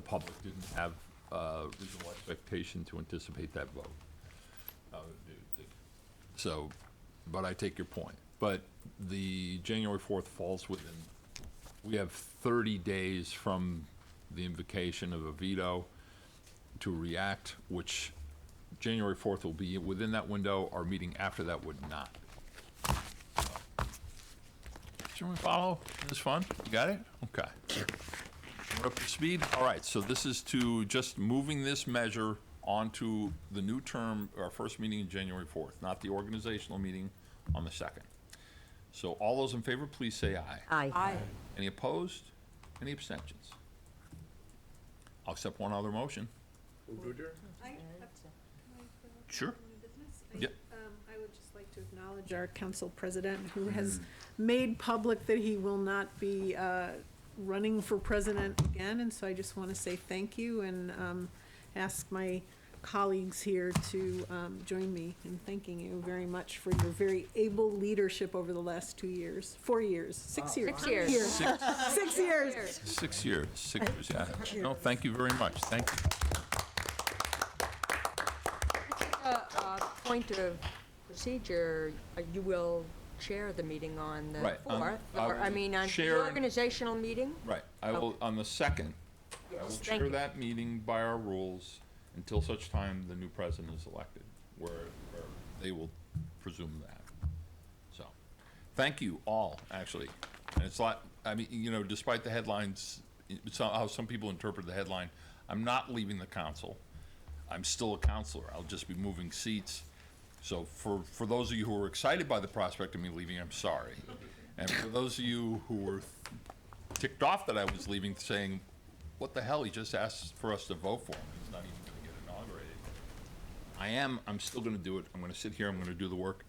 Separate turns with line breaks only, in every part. public didn't have uh, reasonable expectation to anticipate that vote. Uh, the- the- So, but I take your point. But the January 4th falls within, we have 30 days from the invocation of a veto to react, which January 4th will be within that window. Our meeting after that would not. Should we follow? This is fun? You got it? Okay. We're up to speed? All right, so this is to just moving this measure onto the new term, our first meeting in January 4th, not the organizational meeting on the 2nd. So all those in favor, please say aye.
Aye.
Any opposed? Any abstentions? I'll accept one other motion.
I,
Sure.
business? Um,
Yep.
I would just like to acknowledge our council president, who has made public that he will not be uh, running for president again, and so I just want to say thank you and um, ask my colleagues here to um, join me in thanking you very much for your very able leadership over the last two years, four years, six years.
Six years.
Six,
Six years.
six years, six years, yeah. No, thank you very much, thank you.
Uh, uh, Point of procedure, uh, you will chair the meeting on the
Right, on-
4th,
I
or, I
will
mean, on the
chair-
organizational meeting?
Right, I will, on the 2nd, I will
Yes, thank
chair
you.
that meeting by our rules until such time the new president is elected, where, where they will presume that. So, thank you all, actually. And it's like, I mean, you know, despite the headlines, it's how how some people interpret the headline, I'm not leaving the council. I'm still a counselor. I'll just be moving seats. So for, for those of you who were excited by the prospect of me leaving, I'm sorry. And for those of you who were ticked off that I was leaving, saying, what the hell, he just asked for us to vote for him, he's not even gonna get inaugurated. I am, I'm still gonna do it, I'm gonna sit here, I'm gonna do the work,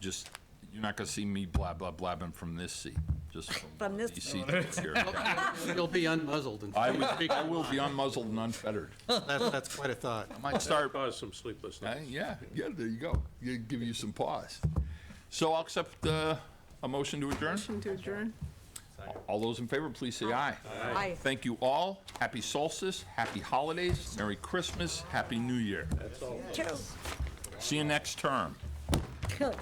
just, you're not gonna see me blah, blah, blabbing from this seat, just from.
From this-
these seats over here. Yeah.
You'll be unmuzzled and
I would, I will be unmuzzled and unfettered.
That's, that's quite a thought.
I might start
Cause some sleepless
Uh,
nights.
Yeah, yeah, there you go. You- Give you some pause. So I'll accept uh, a motion to adjourn.
Motion to adjourn.
All those in favor, please say aye.
Aye.
Thank you all. Happy solstice, happy holidays, Merry Christmas, Happy New Year.
That's all.
Two.
See you next term.
Good.